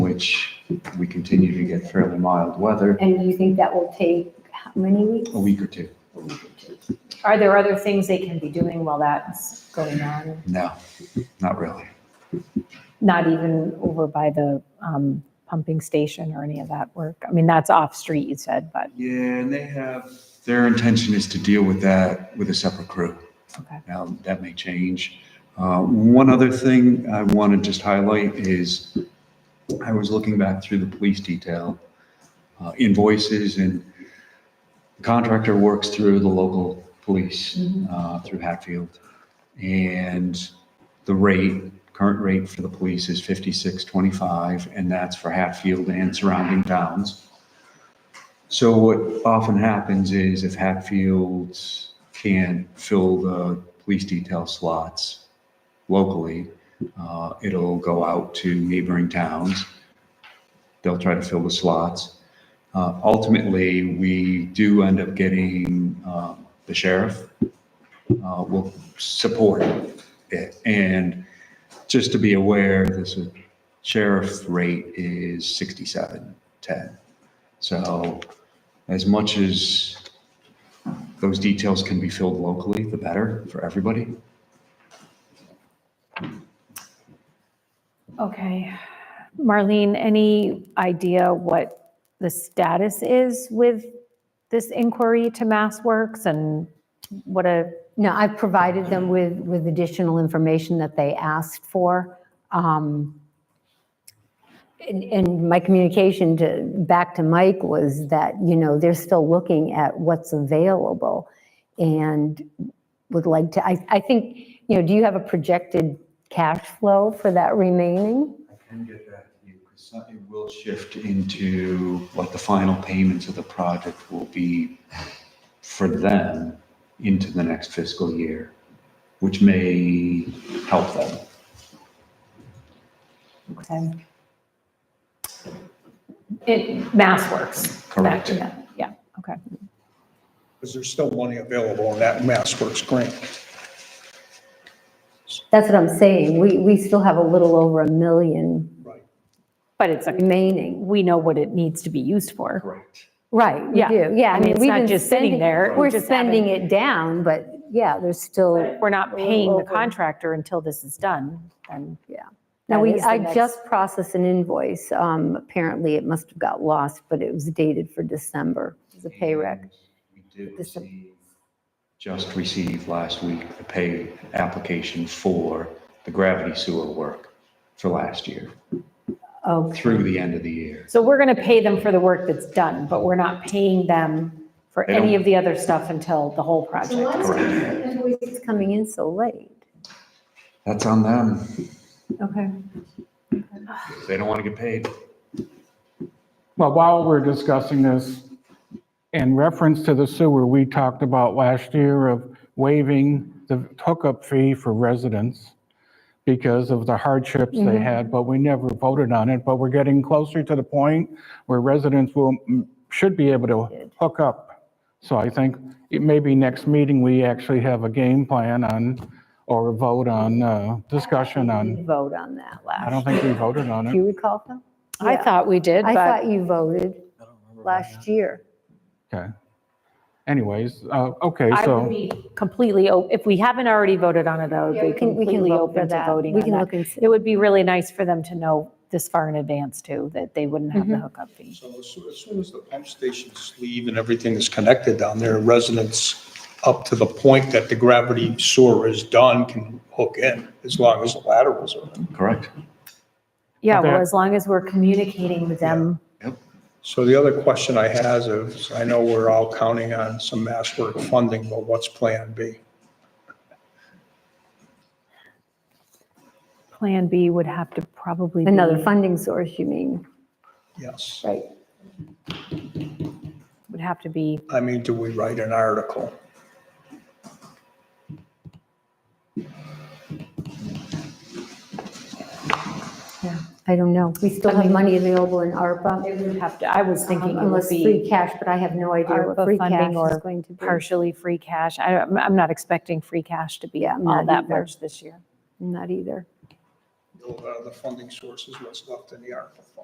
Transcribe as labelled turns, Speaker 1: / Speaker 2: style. Speaker 1: which we continue to get fairly mild weather,
Speaker 2: And do you think that will take how many weeks?
Speaker 1: a week or two.
Speaker 2: A week or two. Are there other things they can be doing while that's going on?
Speaker 1: No, not really.
Speaker 3: not even over by the um, pumping station or any of that work? I mean, that's off-street, you said, but,
Speaker 1: Yeah, and they have, their intention is to deal with that with a separate crew.
Speaker 3: Okay.
Speaker 1: Now, that may change. Uh, One other thing I want to just highlight is I was looking back through the police detail uh, invoices and the contractor works through the local police, uh, through Hatfield. And the rate, current rate for the police is 5625, and that's for Hatfield and surrounding towns. So what often happens is if Hatfield can't fill the police detail slots locally, uh, it'll go out to neighboring towns. They'll try to fill the slots. Uh, Ultimately, we do end up getting uh, the sheriff uh, will support it. And just to be aware, this is- sheriff rate is 6710. So as much as those details can be filled locally, the better for everybody.
Speaker 3: okay. Marlene, any idea what the status is with this inquiry to MassWorks and what a,
Speaker 4: No, I've provided them with, with additional information that they asked for. Um, And, and my communication to, back to Mike was that, you know, they're still looking at what's available and would like to, I, I think, you know, do you have a projected cash flow for that remaining?
Speaker 1: I can get that to you because it will shift into like the final payments of the project will be for them into the next fiscal year, which may help them.
Speaker 3: okay. It, MassWorks.
Speaker 1: Correct.
Speaker 3: Yeah, Yeah, okay.
Speaker 5: Because there's still money available in that Mass Works grant.
Speaker 4: That's what I'm saying. We, we still have a little over a million
Speaker 5: Right.
Speaker 3: But it's, a
Speaker 4: remaining.
Speaker 3: we know what it needs to be used for.
Speaker 1: Correct.
Speaker 4: Right, we
Speaker 3: Yeah.
Speaker 4: do, yeah.
Speaker 3: I mean, it's
Speaker 4: we've
Speaker 3: not
Speaker 4: been
Speaker 3: just sitting
Speaker 4: spending-
Speaker 3: there, we
Speaker 4: We're
Speaker 3: just
Speaker 4: spending it down, but yeah, there's still,
Speaker 3: We're not paying the
Speaker 4: Over.
Speaker 3: contractor until this is done, then.
Speaker 4: now
Speaker 3: that
Speaker 4: we,
Speaker 3: is the
Speaker 4: I
Speaker 3: next-
Speaker 4: just processed an invoice. Um, apparently it must have got lost, but it was dated for December. It was a pay rec.
Speaker 1: And We did
Speaker 4: This-
Speaker 1: receive, just received last week the pay application for the gravity sewer work for last year,
Speaker 4: Oh,
Speaker 1: through the end of the year.
Speaker 3: So we're going to pay them for the work that's done, but we're not paying them for
Speaker 1: They
Speaker 3: any
Speaker 1: don't-
Speaker 3: of the other stuff until the whole project.
Speaker 1: Correct.
Speaker 4: invoice is coming in so late.
Speaker 1: That's on them.
Speaker 4: Okay.
Speaker 1: If They don't want to get paid.
Speaker 6: Well, while we're discussing this, in reference to the sewer, we talked about last year of waiving the hookup fee for residents because of the hardships they
Speaker 3: Mm-hmm.
Speaker 6: had, but we never voted on it. But we're getting closer to the point where residents will, mm, should be able to hook up. So I think it maybe next meeting, we actually have a game plan on, or a vote on, uh, discussion on,
Speaker 4: Vote on that
Speaker 6: I
Speaker 4: last.
Speaker 6: don't think we voted on
Speaker 4: Do
Speaker 6: it.
Speaker 4: you recall that?
Speaker 3: I
Speaker 4: Yeah.
Speaker 3: thought we did,
Speaker 4: I
Speaker 3: but
Speaker 4: thought you voted last year.
Speaker 6: Okay. Anyways, uh, okay,
Speaker 3: I
Speaker 6: so.
Speaker 3: would be completely, o- if we haven't already voted on it, I would
Speaker 4: Yeah,
Speaker 3: be
Speaker 4: we can- we can
Speaker 3: completely
Speaker 4: look for
Speaker 3: open to
Speaker 4: that.
Speaker 3: voting
Speaker 4: We
Speaker 3: on
Speaker 4: can
Speaker 3: that.
Speaker 4: look and see.
Speaker 3: It would be really nice for them to know this far in advance too, that they wouldn't have the hookup fee.
Speaker 5: So as soon, as soon as the pump station sleeve and everything is connected down there, residents up to the point that the gravity sewer is done can hook in, as long as the laterals are in.
Speaker 1: Correct.
Speaker 3: Yeah, well,
Speaker 6: Okay.
Speaker 3: as long as we're communicating with them.
Speaker 5: So the other question I have is, I know we're all counting on some Mass Work funding, but what's Plan B?
Speaker 3: Plan B would have to probably be.
Speaker 4: Another funding source, you mean?
Speaker 5: Yes.
Speaker 4: Right.
Speaker 3: Would have to be,
Speaker 5: I mean, do we write an article?
Speaker 4: Yeah, I don't know. We still have money available in ARPA.
Speaker 3: it would have to, I was thinking it would
Speaker 4: Um, Unless
Speaker 3: be.
Speaker 4: free cash, but I have no idea what
Speaker 3: ARPA
Speaker 4: free
Speaker 3: funding
Speaker 4: cash
Speaker 3: or
Speaker 4: is going to be.
Speaker 3: partially free cash. I, I'm I'm not expecting free cash to be
Speaker 4: Yeah, I'm
Speaker 3: all
Speaker 4: not
Speaker 3: that
Speaker 4: either.
Speaker 3: much this year.
Speaker 4: Not either.
Speaker 5: uh, The funding sources, what's left in the article fund?